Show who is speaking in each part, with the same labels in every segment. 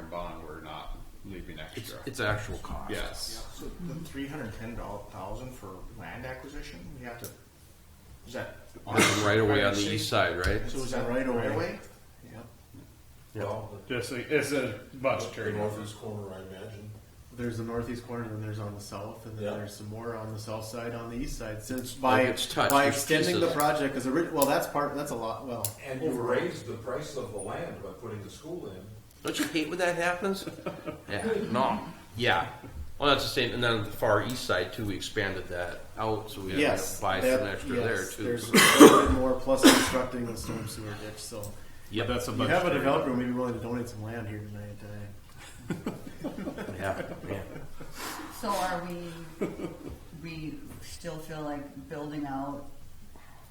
Speaker 1: bond, we're not leaving extra.
Speaker 2: It's actual cost.
Speaker 1: Yes.
Speaker 3: So the three hundred ten thousand for land acquisition, you have to, is that?
Speaker 2: On the right away on the east side, right?
Speaker 3: So is that right away? Yep.
Speaker 4: Well,
Speaker 1: Just, it's a
Speaker 4: the
Speaker 1: budgetary.
Speaker 4: northeast corner, I imagine.
Speaker 5: There's the northeast corner, and then there's on the south, and then
Speaker 4: Yeah.
Speaker 5: there's some more on the south side, on the east side. Since by
Speaker 2: it's touched,
Speaker 5: by
Speaker 2: there's
Speaker 5: extending
Speaker 2: pieces.
Speaker 5: the project, because well, that's part. That's a lot. Well,
Speaker 4: And you raised the price of the land by putting the school in.
Speaker 2: Don't you hate when that happens? Yeah, no, yeah. Well, that's the same, and then on the far east side too, we expanded that out, so we had
Speaker 5: yes,
Speaker 2: to buy
Speaker 5: that-
Speaker 2: some extra
Speaker 5: yes,
Speaker 2: there too.
Speaker 5: There's a little bit more plus constructing the storm sewer ditch. So
Speaker 2: Yep,
Speaker 1: That's a
Speaker 5: you have a
Speaker 1: budgetary.
Speaker 5: developer who may be willing to donate some land here tonight. Uh,
Speaker 2: yeah, yeah.
Speaker 6: So are we, we still feel like building out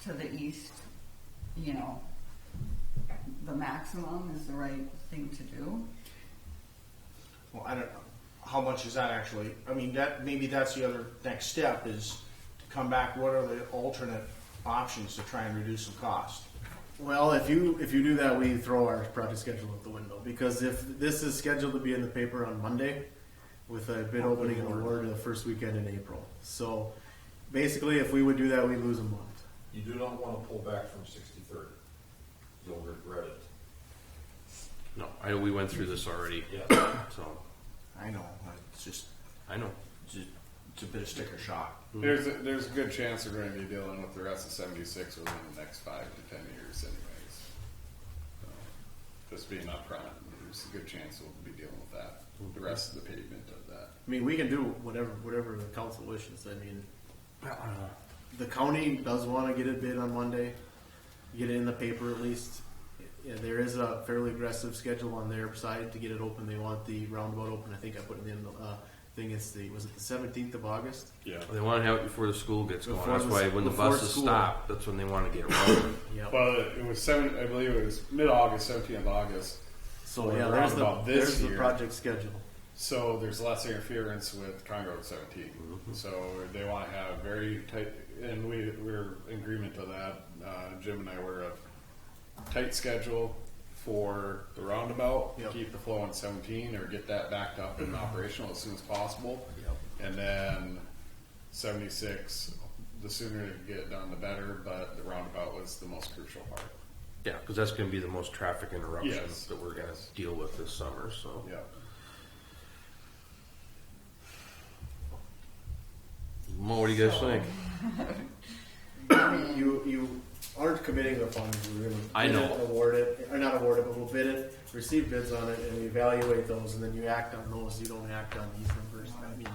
Speaker 6: to the east, you know, the maximum is the right thing to do?
Speaker 3: Well, I don't know. How much is that actually? I mean, that, maybe that's the other next step is to come back, what are the alternate options to try and reduce the cost?
Speaker 5: well, if you if you do that, we throw our project schedule out the window because if this is scheduled to be in the paper on Monday, with a bid opening and award the first weekend in April. So basically, if we would do that, we lose a month.
Speaker 4: You do not want to pull back from sixty-third. You'll regret it.
Speaker 2: No, I know we went through this already.
Speaker 4: Yeah.
Speaker 2: So
Speaker 3: I know, it's just,
Speaker 2: I know.
Speaker 3: just- it's a bit of sticker shock.
Speaker 1: There's a, there's a good chance we're going to be dealing with the rest of 76 within the next five to 10 years, anyways. So, just being upfront, there's a good chance we'll be dealing with that. The rest of the pavement of that.
Speaker 5: I mean, we can do whatever whatever the council wishes. I mean, the county does want to get it bid on Monday, get it in the paper at least. Yeah, there is a fairly aggressive schedule on their side to get it open. They want the roundabout open. I think I put it in the uh, thing. It's the was it the seventeenth of August?
Speaker 1: Yeah.
Speaker 2: They want to have it before the school gets going.
Speaker 5: Before
Speaker 2: That's
Speaker 5: the-
Speaker 2: why when the
Speaker 5: before
Speaker 2: buses
Speaker 5: school.
Speaker 2: stop, that's when they want to get rolling.
Speaker 5: Yeah.
Speaker 1: Well, it was seven. I believe it was mid-August, 17th of August.
Speaker 5: So
Speaker 1: Well,
Speaker 5: yeah, there's the
Speaker 1: roundabout this
Speaker 5: there's the
Speaker 1: year.
Speaker 5: project schedule.
Speaker 1: So there's less interference with County Road 17. So they want to have very tight, and we we're in agreement to that. Uh, Jim and I were a tight schedule for the roundabout.
Speaker 5: Yep.
Speaker 1: Keep the flow on 17, or get that backed up and operational as soon as possible. And then 76. The sooner you get it done, the better. But the roundabout was the most crucial part.
Speaker 2: yeah, because that's going to be the most traffic interruption
Speaker 1: Yes.
Speaker 2: that we're going to deal with this summer. So
Speaker 1: Yeah.
Speaker 2: Mo, what do you guys
Speaker 6: So-
Speaker 2: think?
Speaker 5: You you aren't committing the funds. We're gonna
Speaker 2: I
Speaker 5: bid
Speaker 2: know.
Speaker 5: it, award it, or not award it, but we'll bid it, receive bids on it, and we evaluate those, and then you act on those. You don't act on these numbers. I mean,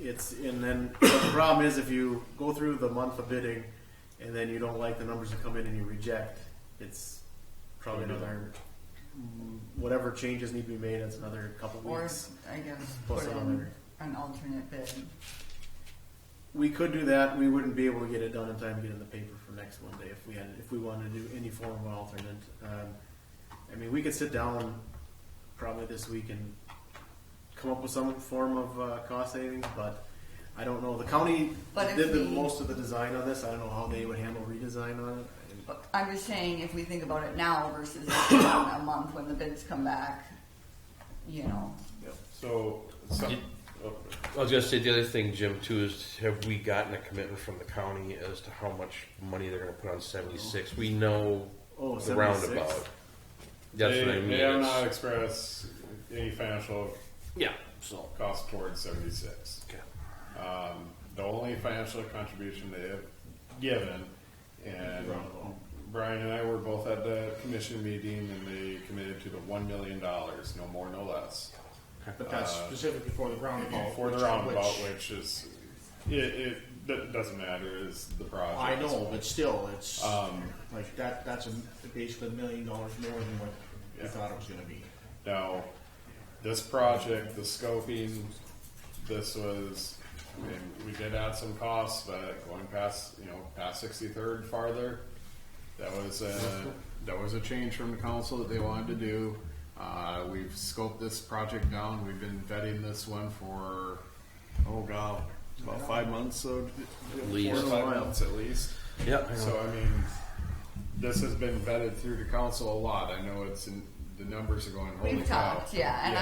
Speaker 5: it's and then but the problem is if you go through the month of bidding, and then you don't like the numbers that come in and you reject, it's probably another mm, whatever changes need to be made. It's another couple
Speaker 6: Or,
Speaker 5: weeks.
Speaker 6: I guess,
Speaker 5: Plus
Speaker 6: put in
Speaker 5: another.
Speaker 6: an alternate bid.
Speaker 5: We could do that. We wouldn't be able to get it done in time to get in the paper for next Monday if we had, if we wanted to do any form of alternate. Um, I mean, we could sit down probably this week and come up with some form of uh, cost savings, but I don't know. The county
Speaker 6: But if
Speaker 5: did the
Speaker 6: we-
Speaker 5: most of the design on this. I don't know how they would handle redesign on it. And-
Speaker 6: But I'm just saying, if we think about it now versus in a month when the bids come back, you know,
Speaker 1: So. Some, oh.
Speaker 2: I was gonna say the other thing, Jim, too, is have we gotten a commitment from the county as to how much money they're gonna put on seventy-six? We know
Speaker 5: Oh,
Speaker 2: the
Speaker 5: 76?
Speaker 2: roundabout. That's
Speaker 1: they,
Speaker 2: what I mean.
Speaker 1: They have
Speaker 2: It's-
Speaker 1: not expressed any financial
Speaker 2: Yeah, so,
Speaker 1: cost towards seventy-six.
Speaker 2: okay.
Speaker 1: Um, the only financial contribution they have given, and Brian and I were both at the commission meeting, and they committed to the one million dollars, no more, no less,
Speaker 3: But that's specifically for the roundabout.
Speaker 1: Uh, for the
Speaker 3: Oh, which-
Speaker 1: roundabout,
Speaker 3: which-
Speaker 1: which is it. it that doesn't matter. Is the project?
Speaker 3: I know, but still, it's
Speaker 1: Um,
Speaker 3: like that, that's a, basically a million dollars more than what we
Speaker 1: Yeah.
Speaker 3: thought it was gonna be.
Speaker 1: Now, this project, the scoping, this was, I mean, we did add some costs, but going past, you know, past sixty-third farther, that was a, that was a change from the council that they wanted to do. Uh, we've scoped this project down, we've been vetting this one for, oh god, about five months, so.
Speaker 2: Least.
Speaker 1: Four or five months at least.
Speaker 2: Yeah, I know.
Speaker 1: So I mean, this has been vetted through the council a lot. I know it's in,
Speaker 7: the numbers are going, holy
Speaker 1: We've
Speaker 7: cow.
Speaker 1: talked, yeah, and